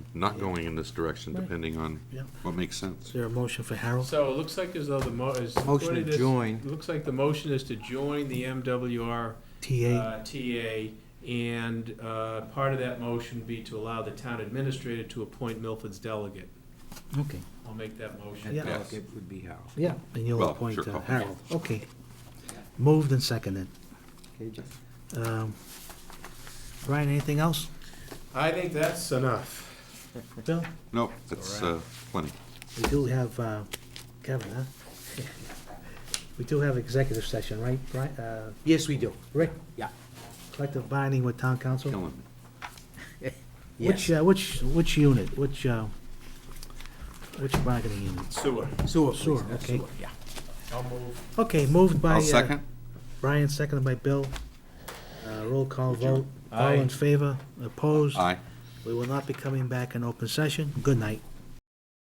not going in this direction, Right. depending on Yeah. what makes sense. Is there a motion for Harold? So it looks like as though the mo, is. Motion to according this- join. it Looks like the motion is to join the MWR TA? uh, TA, and uh, part of that motion be to allow the town administrator to appoint Milford's delegate. Okay, I'll make that motion. And Yeah. delegate would be Harold. yeah, and you'll Well, appoint sure, uh, I'll- Harold. Okay. Moved and seconded. Okay, Jeff? Um, Brian, anything else? I think that's enough. Bill? No, that's uh, plenty. We do have, uh, Kevin, huh? We do have executive session, right, Brian? Uh, Yes, we do. Rick, Yeah. collective binding with town council? Killing me. Which, uh, which, which unit, which, uh, which bargaining unit? Sewer. Sewer, Sewer, please. Uh, okay. sewer, Yeah. I'll move. Okay, moved by. I'll uh, second. Brian, seconded by Bill. Uh, Roll call vote. All Aye. in favor? Opposed? Aye. We will not be coming back in open session. Good night.